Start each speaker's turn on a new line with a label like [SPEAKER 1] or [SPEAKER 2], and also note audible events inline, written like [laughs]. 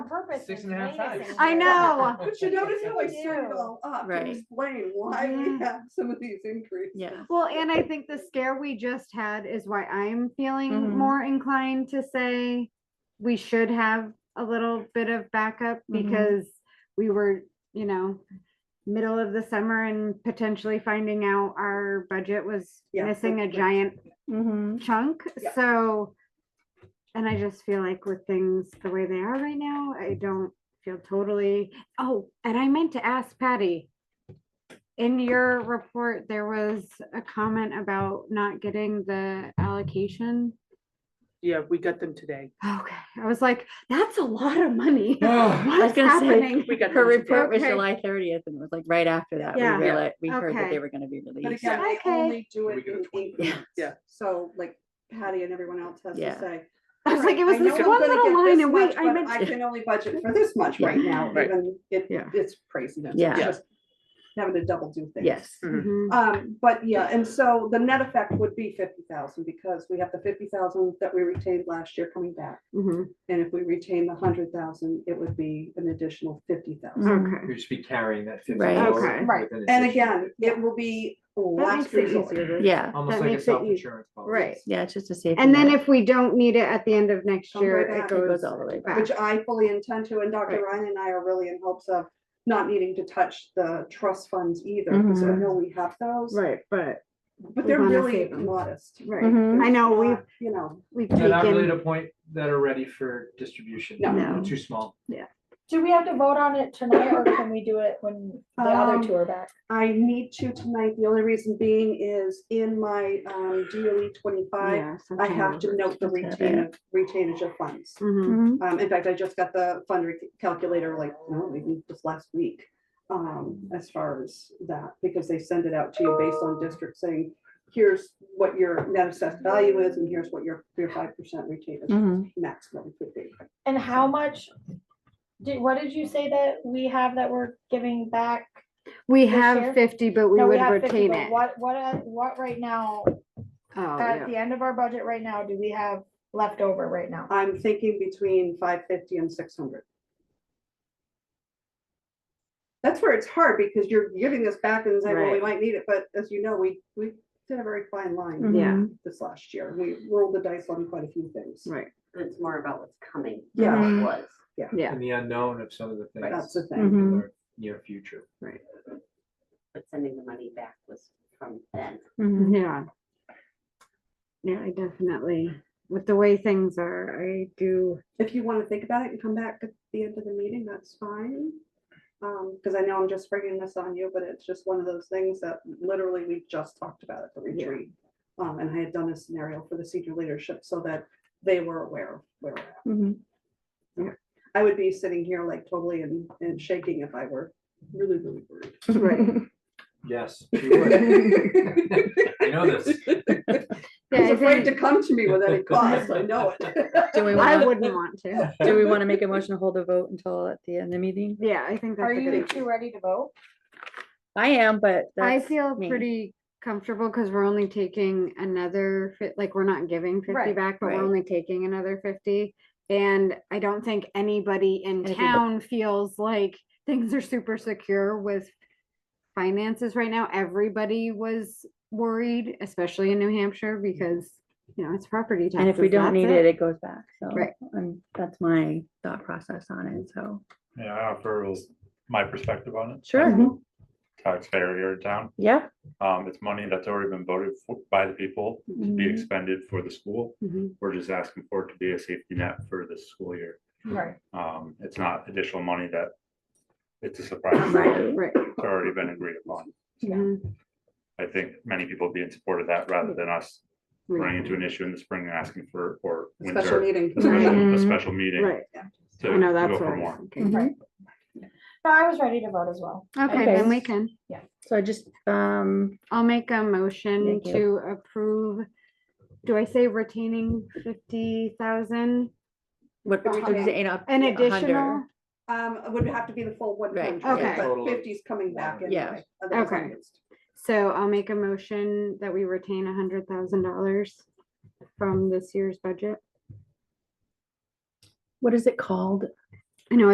[SPEAKER 1] purpose.
[SPEAKER 2] Six
[SPEAKER 1] is
[SPEAKER 2] and a half
[SPEAKER 1] raising
[SPEAKER 2] times.
[SPEAKER 1] it.
[SPEAKER 2] [laughs]
[SPEAKER 3] I know.
[SPEAKER 4] But you notice
[SPEAKER 3] [laughs]
[SPEAKER 4] how I
[SPEAKER 1] Yeah.
[SPEAKER 4] [laughs] set it all up to
[SPEAKER 5] Right.
[SPEAKER 4] explain why we
[SPEAKER 3] Yeah.
[SPEAKER 4] have some of these increases.
[SPEAKER 5] Yeah.
[SPEAKER 3] Mm-hmm. Well, and I think the scare we just had is why I'm feeling
[SPEAKER 4] Mm-hmm.
[SPEAKER 5] Mhm.
[SPEAKER 3] more inclined to say we should have a little bit of backup
[SPEAKER 4] Mm-hmm.
[SPEAKER 5] Mhm.
[SPEAKER 3] because we were, you know, middle of the summer and potentially finding out our budget was
[SPEAKER 4] Yeah,
[SPEAKER 3] missing a
[SPEAKER 4] that's-
[SPEAKER 3] giant
[SPEAKER 5] Mm-hmm.
[SPEAKER 3] chunk.
[SPEAKER 4] Yeah.
[SPEAKER 3] So, and I just feel like with things the way they are right now, I don't feel totally. Oh, and I meant to ask Patty. In your report, there was a comment about not getting the allocation.
[SPEAKER 6] Yeah, we got them today.
[SPEAKER 3] Okay, I was like, that's a lot of money.
[SPEAKER 2] Oh,
[SPEAKER 3] What's
[SPEAKER 5] gonna say,
[SPEAKER 3] happening?
[SPEAKER 6] We got
[SPEAKER 5] Her
[SPEAKER 6] them today.
[SPEAKER 5] report was
[SPEAKER 3] Okay.
[SPEAKER 5] July thirtieth and it was like right after that, we
[SPEAKER 3] Yeah.
[SPEAKER 2] Yeah.
[SPEAKER 5] realized, we heard that
[SPEAKER 3] Okay.
[SPEAKER 5] they were gonna be
[SPEAKER 4] But
[SPEAKER 5] released.
[SPEAKER 4] again, they
[SPEAKER 3] Okay.
[SPEAKER 4] only do
[SPEAKER 2] We
[SPEAKER 4] it
[SPEAKER 2] get a
[SPEAKER 4] in
[SPEAKER 2] twenty.
[SPEAKER 4] increments.
[SPEAKER 6] Yeah.
[SPEAKER 4] So like Patty and everyone else has to
[SPEAKER 5] Yeah.
[SPEAKER 4] say.
[SPEAKER 3] I was
[SPEAKER 4] "All
[SPEAKER 3] like, it
[SPEAKER 4] right,
[SPEAKER 3] was
[SPEAKER 4] I know
[SPEAKER 3] this one
[SPEAKER 4] I'm gonna
[SPEAKER 3] little
[SPEAKER 4] get
[SPEAKER 3] line
[SPEAKER 4] this
[SPEAKER 3] and wait,
[SPEAKER 4] much,
[SPEAKER 3] I
[SPEAKER 4] but
[SPEAKER 3] meant.
[SPEAKER 4] I can only budget for this
[SPEAKER 3] [laughs]
[SPEAKER 4] much right now,
[SPEAKER 2] Right.
[SPEAKER 4] even it,
[SPEAKER 5] Yeah.
[SPEAKER 4] it's craziness.
[SPEAKER 5] Yeah.
[SPEAKER 4] It's just Having to double do things.
[SPEAKER 5] Yes,
[SPEAKER 3] Mhm.
[SPEAKER 4] Um, but yeah, and so the net effect would be fifty thousand because we have the fifty thousand that we retained last year coming back.
[SPEAKER 3] Mhm.
[SPEAKER 4] And if we retain the hundred thousand, it would be an additional fifty thousand.
[SPEAKER 3] Okay.
[SPEAKER 2] You should be carrying that. 50
[SPEAKER 5] Right.
[SPEAKER 2] forward
[SPEAKER 3] Okay.
[SPEAKER 2] with
[SPEAKER 1] Right.
[SPEAKER 2] an
[SPEAKER 4] And
[SPEAKER 2] addition.
[SPEAKER 4] again, it will be
[SPEAKER 3] That
[SPEAKER 4] last
[SPEAKER 3] makes it
[SPEAKER 4] resort.
[SPEAKER 3] easier. to-
[SPEAKER 5] yeah,
[SPEAKER 2] Almost
[SPEAKER 3] that
[SPEAKER 2] like a
[SPEAKER 3] makes it eas-
[SPEAKER 2] self-insurance policy.
[SPEAKER 3] Right.
[SPEAKER 5] yeah, it's just a safety.
[SPEAKER 3] And then
[SPEAKER 5] net.
[SPEAKER 3] if we don't need it at the end of next
[SPEAKER 4] Don't go
[SPEAKER 3] year,
[SPEAKER 4] back.
[SPEAKER 3] it
[SPEAKER 4] It
[SPEAKER 3] goes.
[SPEAKER 5] goes all the way
[SPEAKER 3] back.
[SPEAKER 4] Which I fully intend to, and Dr.
[SPEAKER 5] Right.
[SPEAKER 4] Ryan and I are really in hopes of not needing to touch the trust funds either, because I
[SPEAKER 5] Mhm.
[SPEAKER 4] know we have those,
[SPEAKER 3] Mm-hmm. Right, but,
[SPEAKER 4] but they're
[SPEAKER 3] We wanna
[SPEAKER 4] really
[SPEAKER 3] save them.
[SPEAKER 4] modest.
[SPEAKER 3] right.
[SPEAKER 5] Mhm.
[SPEAKER 3] I know, we've,
[SPEAKER 4] Not, You know,
[SPEAKER 3] we've
[SPEAKER 2] They're not really at
[SPEAKER 3] taken,
[SPEAKER 2] a point that are ready for distribution.
[SPEAKER 4] No.
[SPEAKER 2] They're
[SPEAKER 3] No.
[SPEAKER 2] Too small.
[SPEAKER 1] Do we have to vote on it tonight or can we do it when the
[SPEAKER 4] Um,
[SPEAKER 1] other two are back?
[SPEAKER 4] I need to tonight, the only reason being is in my um DOE twenty-five,
[SPEAKER 3] yeah.
[SPEAKER 4] I have to note the
[SPEAKER 5] That's
[SPEAKER 4] retain, of- retainage of funds.
[SPEAKER 3] hmm
[SPEAKER 5] Mhm.
[SPEAKER 4] Um, in fact, I just got the fund rec- calculator like, no, maybe just last week. Um, as far as that, because they send it out to you based on district saying, here's what your net assessed value is and here's what your, your five percent retained
[SPEAKER 5] Mhm.
[SPEAKER 4] maximum could be.
[SPEAKER 1] And how much? Did, what did you say that we have that we're giving back?
[SPEAKER 3] We
[SPEAKER 1] This year?
[SPEAKER 3] have fifty, but we
[SPEAKER 1] No,
[SPEAKER 3] would
[SPEAKER 1] have 50,
[SPEAKER 3] retain
[SPEAKER 1] but
[SPEAKER 3] it.
[SPEAKER 1] What, what, uh, what right now,
[SPEAKER 3] Oh,
[SPEAKER 1] at
[SPEAKER 3] yeah.
[SPEAKER 1] the end of our budget right now, do we have left over right now?
[SPEAKER 4] I'm thinking between five fifty and six hundred. That's where it's hard because you're giving this back and saying, well, we
[SPEAKER 3] Right.
[SPEAKER 4] might need it, but as you know, we, we did a very fine line
[SPEAKER 3] Yeah.
[SPEAKER 5] Mhm.
[SPEAKER 4] this last year. We rolled the dice on quite a few things.
[SPEAKER 3] Right,
[SPEAKER 7] It's more about what's coming. than
[SPEAKER 4] Yeah.
[SPEAKER 7] what Was.
[SPEAKER 3] yeah,
[SPEAKER 2] And the unknown of some of the things.
[SPEAKER 4] That's the
[SPEAKER 2] in
[SPEAKER 3] Mm-hmm.
[SPEAKER 4] thing.
[SPEAKER 5] Mhm.
[SPEAKER 2] our Near future.
[SPEAKER 7] But sending the money back was from then.
[SPEAKER 5] Mhm.
[SPEAKER 3] yeah. Yeah, I definitely, with the way things are, I do,
[SPEAKER 4] If you want to think about it and come back at the end of the meeting, that's fine. Um, because I know I'm just bringing this on you, but it's just one of those things that literally we just talked about at the
[SPEAKER 3] Yeah.
[SPEAKER 4] retreat. Um, and I had done a scenario for the senior leadership so that they were aware of where we're at.
[SPEAKER 3] Mm-hmm.
[SPEAKER 5] Mhm.
[SPEAKER 4] I would be sitting here like totally and, and shaking if I were really, really worried.
[SPEAKER 3] [laughs] right.
[SPEAKER 2] Yes. you
[SPEAKER 3] [laughs]
[SPEAKER 2] would. [laughs] I know this.
[SPEAKER 3] Yeah,
[SPEAKER 4] He's
[SPEAKER 3] I
[SPEAKER 4] afraid to
[SPEAKER 3] think-
[SPEAKER 4] come to me with any cost, I know it.
[SPEAKER 3] [laughs]
[SPEAKER 5] Do we
[SPEAKER 3] I
[SPEAKER 5] wanna,
[SPEAKER 3] wouldn't want to.
[SPEAKER 5] do we wanna make a motion to hold a vote until at the end of the meeting?
[SPEAKER 3] Yeah, I think
[SPEAKER 1] Are
[SPEAKER 3] that's a good.
[SPEAKER 1] you
[SPEAKER 3] idea.
[SPEAKER 1] two ready to vote?
[SPEAKER 5] I am, but
[SPEAKER 3] I
[SPEAKER 5] that's,
[SPEAKER 3] feel
[SPEAKER 5] me.
[SPEAKER 3] pretty comfortable because we're only taking another, fi- like, we're not giving fifty
[SPEAKER 1] Right,
[SPEAKER 3] back, but
[SPEAKER 5] right.
[SPEAKER 3] we're only taking another fifty. And I don't think anybody in
[SPEAKER 5] Anybody.
[SPEAKER 3] town feels like things are super secure with finances right now. Everybody was worried, especially in New Hampshire, because, you know, it's property taxes.
[SPEAKER 5] and if we don't
[SPEAKER 3] that's
[SPEAKER 5] need it, it goes back, so.
[SPEAKER 3] Right.
[SPEAKER 5] um, that's my thought process on it, so.
[SPEAKER 8] Yeah, I offer was my perspective on it.
[SPEAKER 3] Mm-hmm.
[SPEAKER 5] Sure,
[SPEAKER 8] Taxpayer here in town.
[SPEAKER 5] yeah.
[SPEAKER 8] Um, it's money that's already been voted for by the people
[SPEAKER 3] Mm-hmm.
[SPEAKER 8] to be
[SPEAKER 5] Mhm.
[SPEAKER 8] expended for the school.
[SPEAKER 3] Mhm.
[SPEAKER 8] We're just asking for it to be a safety net for this school year.
[SPEAKER 3] Mm-hmm.
[SPEAKER 1] Right.
[SPEAKER 8] Um, it's not additional money that it's a surprise.
[SPEAKER 5] Right.
[SPEAKER 3] Right.
[SPEAKER 8] It's already been agreed upon.
[SPEAKER 3] mhm,
[SPEAKER 8] I think many people would be in support of that rather than us running
[SPEAKER 3] right,
[SPEAKER 8] into an issue in the spring and asking for, or
[SPEAKER 4] [laughs] Special
[SPEAKER 8] winter.
[SPEAKER 3] [laughs]
[SPEAKER 4] meeting.
[SPEAKER 8] a special- A
[SPEAKER 5] Right.
[SPEAKER 8] special meeting
[SPEAKER 3] Right,
[SPEAKER 8] to
[SPEAKER 3] I know
[SPEAKER 8] go
[SPEAKER 3] that's
[SPEAKER 8] for
[SPEAKER 3] what. I
[SPEAKER 8] more.
[SPEAKER 3] was thinking.
[SPEAKER 5] Mhm.
[SPEAKER 1] No, I was ready to vote as well.
[SPEAKER 3] Okay,
[SPEAKER 5] Okay.
[SPEAKER 3] then we can.
[SPEAKER 5] So I just, um,
[SPEAKER 3] I'll make a motion
[SPEAKER 5] Thank you.
[SPEAKER 3] to approve, do I say retaining fifty thousand?
[SPEAKER 5] what,
[SPEAKER 4] A
[SPEAKER 5] what
[SPEAKER 4] hundred.
[SPEAKER 5] did you say, up-
[SPEAKER 3] An
[SPEAKER 5] a hundred?
[SPEAKER 3] additional,
[SPEAKER 4] Um, it would have to be the full one
[SPEAKER 5] Right,
[SPEAKER 4] hundred,
[SPEAKER 3] okay.
[SPEAKER 4] but
[SPEAKER 2] Total.
[SPEAKER 4] fifty's coming back
[SPEAKER 5] Yeah.
[SPEAKER 4] anyway. otherwise I'm
[SPEAKER 3] Okay.
[SPEAKER 4] against.
[SPEAKER 3] so I'll make a motion that we retain a hundred thousand dollars from this year's budget.
[SPEAKER 5] What is it called?